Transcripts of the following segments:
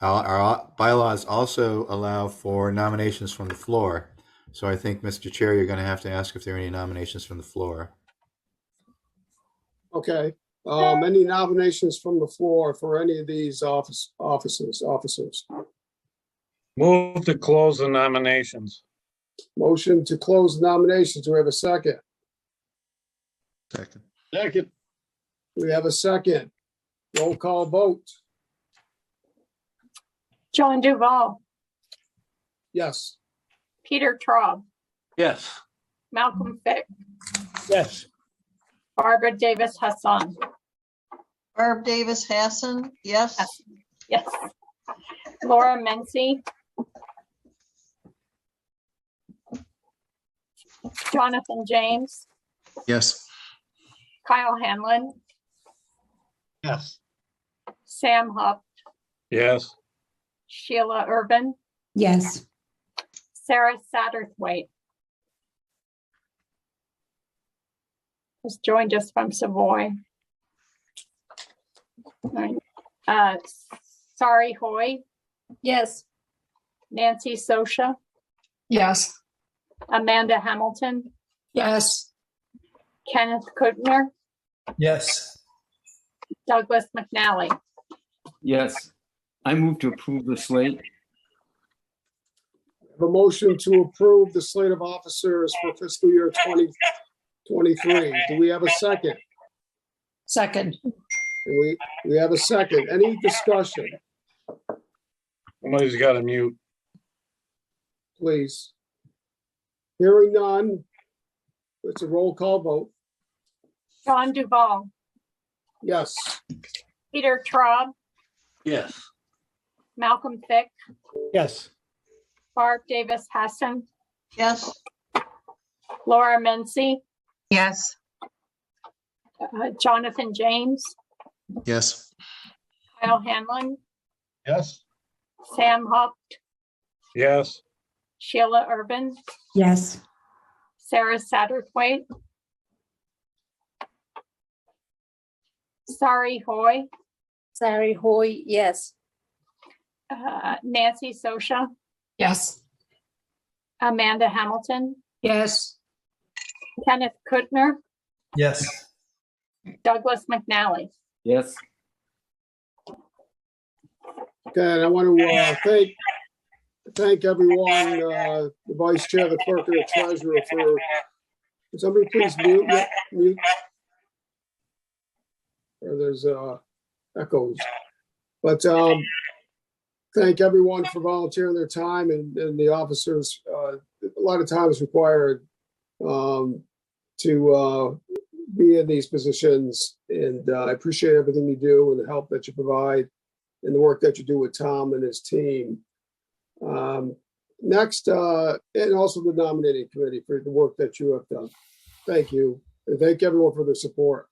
Our, our bylaws also allow for nominations from the floor. So I think, Mr. Chair, you're going to have to ask if there are any nominations from the floor. Okay, um, any nominations from the floor for any of these office, offices, officers? Move to close the nominations. Motion to close nominations. Do we have a second? Second. Second, We have a second. Roll call vote. John Duval, Yes. Peter Traub, yes. Malcolm Fick, Yes. Barbara Davis Hassan. Barb Davis Hassan, yes. Yes. Laura Mency. Jonathan James, Yes. Kyle Hanlon, Yes. Sam Huff, Yes, Sheila Urban, yes, Sarah Satterthwaite. Who's joined us from Savoy. Alright, uh, Sari Hoy, Yes. Nancy Sosha, Yes. Amanda Hamilton, Yes. Kenneth Kutner, Yes. Douglas McNally. Yes. I move to approve the slate. The motion to approve the slate of officers for fiscal year twenty twenty-three. Do we have a second? Second. Do We, we have a second. Any discussion, somebody's got to mute. please? Hearing none. It's a roll call vote. John Duval, Yes. Peter Traub, Yes. Malcolm Fick, Yes. Barb Davis Hassan, Yes. Laura Mency, Yes. uh, Jonathan James, Yes. Kyle Hanlon, Yes. Sam Huff, Yes, Sheila Urban, yes. Sarah Satterthwaite. Sari Hoy, Sari Hoy, yes. uh, Nancy Sosha, Yes. Amanda Hamilton, Yes. Kenneth Kutner, Yes. Douglas McNally. Yes. Okay, and I want to uh, thank, thank everyone, uh, the vice chair, the clerk, and the treasurer for, Can somebody please mute, mu- mute. Or there's uh, echoes. But um, thank everyone for volunteering their time and, and the officers, uh, a lot of time is required um, to uh, be in these positions. And uh, I appreciate everything you do and the help that you provide and the work that you do with Tom and his team. Um, next, uh, and also the nominating committee for the work that you have done. Thank you. And thank everyone for their support.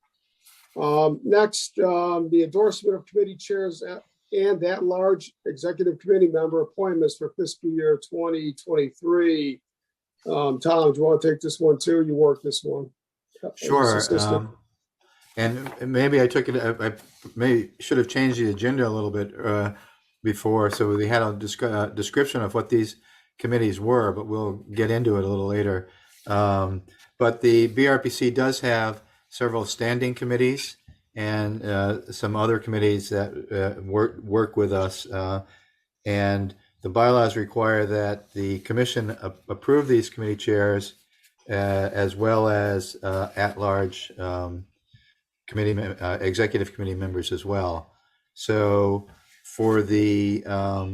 Um, next, um, the endorsement of committee chairs at- and that large executive committee member appointments for fiscal year 2023. Um, Tom, do you want to take this one too? You work this one. Sure. Assistant. um, And maybe I took it, I I may, should have changed the agenda a little bit uh, before, so we had a descri- uh, description of what these committees were, but we'll get into it a little later. Um, But the BRPC does have several standing committees and uh, some other committees that uh, work, work with us. uh, And the bylaws require that the commission a- approve these committee chairs uh, as well as uh, at-large um, committee, mem- uh, executive committee members as well. So for the, um,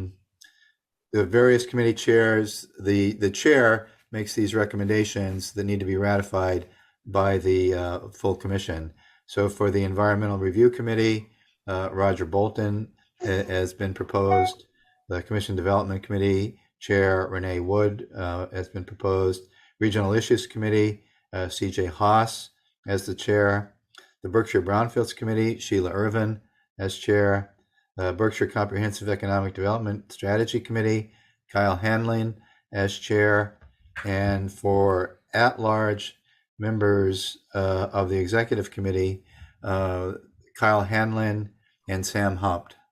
the various committee chairs, the, the chair makes these recommendations that need to be ratified by the uh, full commission. So for the Environmental Review Committee, uh, Roger Bolton uh, has been proposed. The Commission Development Committee Chair Renee Wood uh, has been proposed. Regional Issues Committee, uh, CJ Haas as the chair. The Berkshire Brownfields Committee, Sheila Irvin as chair. Uh, Berkshire Comprehensive Economic Development Strategy Committee, Kyle Hanlon as chair. And for at-large members uh, of the executive committee, uh, Kyle Hanlon and Sam Humpt.